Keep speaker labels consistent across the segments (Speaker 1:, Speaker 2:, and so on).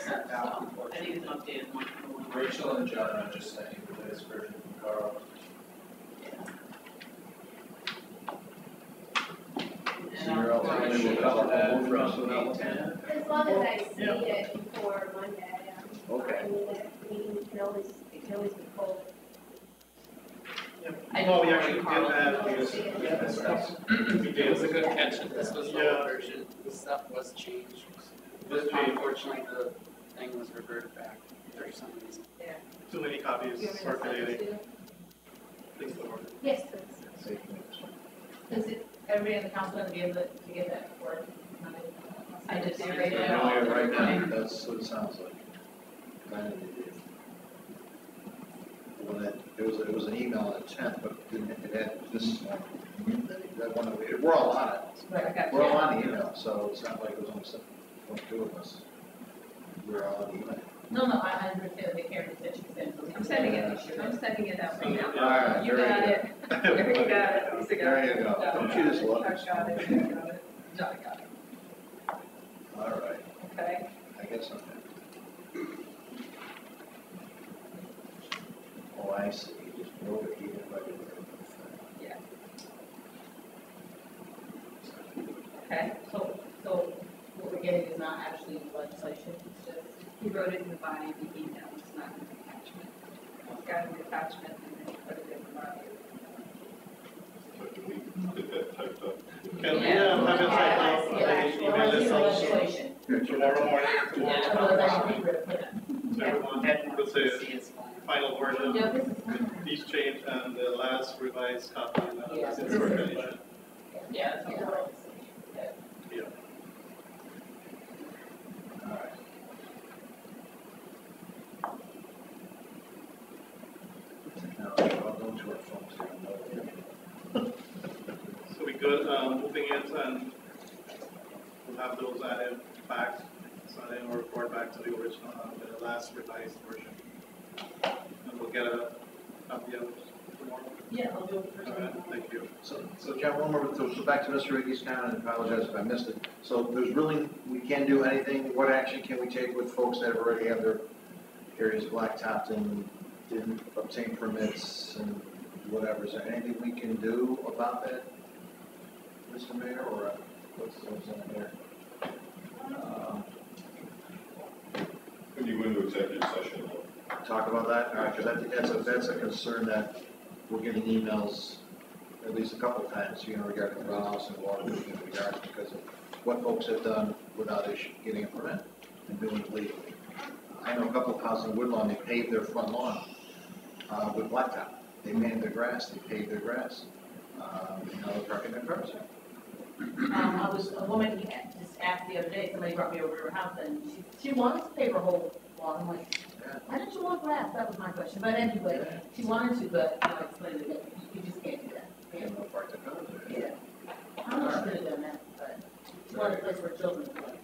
Speaker 1: sent out before.
Speaker 2: I need an updated one.
Speaker 3: Rachel and John, I just sent you the latest version of Carl.
Speaker 2: And I'll-
Speaker 3: Zero, I should have that from eight ten.
Speaker 4: As long as I see it before Monday, i
Speaker 5: Okay.
Speaker 4: I mean, that meeting can always, it can always be pulled.
Speaker 2: I
Speaker 1: Well, we
Speaker 2: know
Speaker 1: actually did
Speaker 2: Carl.
Speaker 1: that because.
Speaker 4: Yeah,
Speaker 3: that's right.
Speaker 1: We
Speaker 6: It
Speaker 1: did,
Speaker 6: was a good catch, that this was the
Speaker 1: Yeah.
Speaker 6: old version, the stuff was changed.
Speaker 1: This page.
Speaker 6: Unfortunately, the thing was reverted back for some reason.
Speaker 1: too many copies circulating, please, Lord.
Speaker 4: Yes, please.
Speaker 7: Is it, everybody in the council gonna be able to to get that for Monday?
Speaker 2: I did see
Speaker 3: I
Speaker 2: it.
Speaker 3: know it right now, that's what it sounds like.
Speaker 5: Kind of did. When it, it was, it was an email at ten, but it didn't, it had this, uh, that one, that we- we're all on it.
Speaker 7: Right, I got
Speaker 5: We're all
Speaker 7: you.
Speaker 5: on the email, so it's not like it was only seven, only two of us. We're all on the email.
Speaker 7: No, no, I I understand the Karen that she sent. I'm sending it, I'm sending it out right now.
Speaker 5: All right,
Speaker 7: You
Speaker 5: very
Speaker 7: got
Speaker 5: good.
Speaker 7: it, you got it, Lisa got it.
Speaker 5: There you go. Don't you just love us?
Speaker 7: I got it, I got it. John got it,
Speaker 5: All right,
Speaker 7: okay.
Speaker 5: I guess I'm. Oh, I see, You just wrote it here, but it wasn't.
Speaker 7: Okay, so, so what we're getting is not actually legislation, it's just, he wrote it in the body of the email, it's not an attachment. It's got an attachment and then he put it in the body.
Speaker 8: Can we get that typed up?
Speaker 1: Can we, um, have it
Speaker 7: Yeah,
Speaker 1: typed up,
Speaker 7: yeah,
Speaker 1: email this out
Speaker 7: legislation.
Speaker 1: tomorrow morning,
Speaker 6: Yeah.
Speaker 1: tomorrow,
Speaker 7: Well, that's what we wrote, yeah.
Speaker 1: so everyone will say
Speaker 6: See, it's fine.
Speaker 1: final version,
Speaker 7: No, this is not.
Speaker 1: each change and the last revised copy, and then
Speaker 7: Yeah.
Speaker 1: it's in circulation.
Speaker 2: Yeah, it's
Speaker 7: Yeah.
Speaker 2: all right.
Speaker 5: All right. Now, I'll go to our phones here.
Speaker 1: So we good, um, moving it and we'll have those added back, so then we'll report back to the original, uh, the last revised version. And we'll get a copy of it tomorrow.
Speaker 2: Yeah, I'll do it for
Speaker 1: All right,
Speaker 2: tomorrow.
Speaker 1: thank you.
Speaker 5: So, so John, one more, so so back to Mr. Iggy's comment, and apologize if I missed it. So there's really, we can do anything, what action can we take with folks that have already have their areas blacktopped and didn't obtain permits and whatever? Is there anything we can do about that, Mr. Mayor, or uh, what's, what's in there? Um,
Speaker 8: When you go into executive session, though,
Speaker 5: talk about that? All right, because I think that's a, that's a concern that we're getting emails at least a couple of times, you know, regarding runoffs and water movement in regards because of what folks have done without issue, getting a permit and doing it legally. I know a couple of houses in Woodlawn, they paved their front lawn, uh, with blacktop. They manned their grass, they paved their grass. Um, and now they're parking their cars there.
Speaker 7: Um, I was, a woman just asked the other day, somebody brought me over to her house and she, she wanted to pave her whole lawn. I'm like,
Speaker 5: Yeah.
Speaker 7: why don't you want grass? That was my question. But anyway, she wanted to, but I explained that you just can't do that.
Speaker 5: They don't park their cars there.
Speaker 7: Yeah. I know she could have done that, but it's one of the places where children play.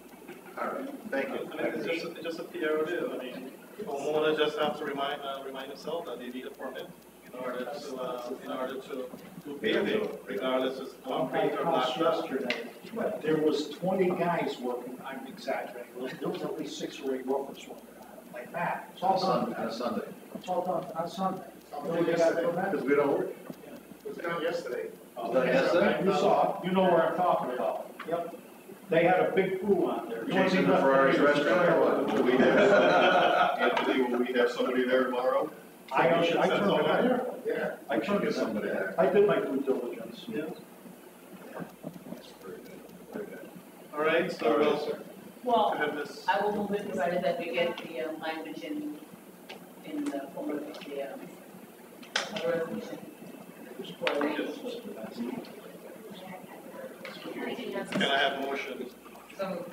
Speaker 5: All right, thank you.
Speaker 1: I mean, it's just, it's just a PR deal, I mean, homeowner just have to remind, uh, remind himself that they need a permit in order to, uh, in order to do paving, regardless of concrete or
Speaker 9: house
Speaker 1: blacktop.
Speaker 9: yesterday, there was twenty guys working, I'm exaggerating, there was at least six or eight workers working on it, like that. It's all
Speaker 5: On Sunday,
Speaker 9: done,
Speaker 5: on uh, Sunday,
Speaker 9: it's all done, on Sunday.
Speaker 1: Something yesterday.
Speaker 5: because we don't work.
Speaker 1: was done yesterday.
Speaker 5: Was that yesterday?
Speaker 9: Oh, You saw, it. you know where I'm talking about. Yep. They had a big pool on there.
Speaker 5: Chasing the Ferrari's restaurant or what?
Speaker 8: will we have, Anthony, will we have somebody there tomorrow?
Speaker 9: I, I turned it on.
Speaker 8: Yeah.
Speaker 9: I turned
Speaker 5: Get
Speaker 9: it on.
Speaker 5: somebody there.
Speaker 9: I did my due diligence.
Speaker 1: Yeah,
Speaker 5: That's very good, very good.
Speaker 1: all right, so
Speaker 5: All right,
Speaker 1: we'll
Speaker 5: sir.
Speaker 7: Well,
Speaker 1: have this.
Speaker 7: I will move it provided that we get the um, language in, in the form of the, um, of the resolution. For the-
Speaker 4: I think that's.
Speaker 1: Can I have motion?
Speaker 7: So,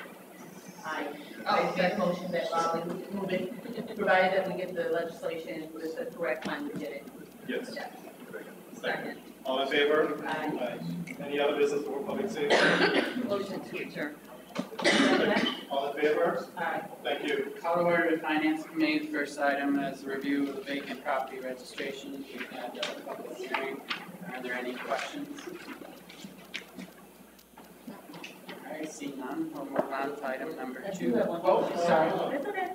Speaker 7: I, I make a motion that Lolly move it, provided that we get the legislation with the correct language in it.
Speaker 1: Yes.
Speaker 7: Second.
Speaker 1: All in favor?
Speaker 7: Aye.
Speaker 1: Any other business for public safety?
Speaker 2: Motion to adjourn.
Speaker 1: All in favor?
Speaker 7: Aye.
Speaker 1: Thank you.
Speaker 6: Colorado Finance Committee, first item is review of the vacant property registration. We've had a public hearing. Are there any questions? All right, seeing none, we'll move on to item number
Speaker 7: I
Speaker 6: two.
Speaker 7: do have one.
Speaker 6: Oh, sorry.
Speaker 7: It's okay.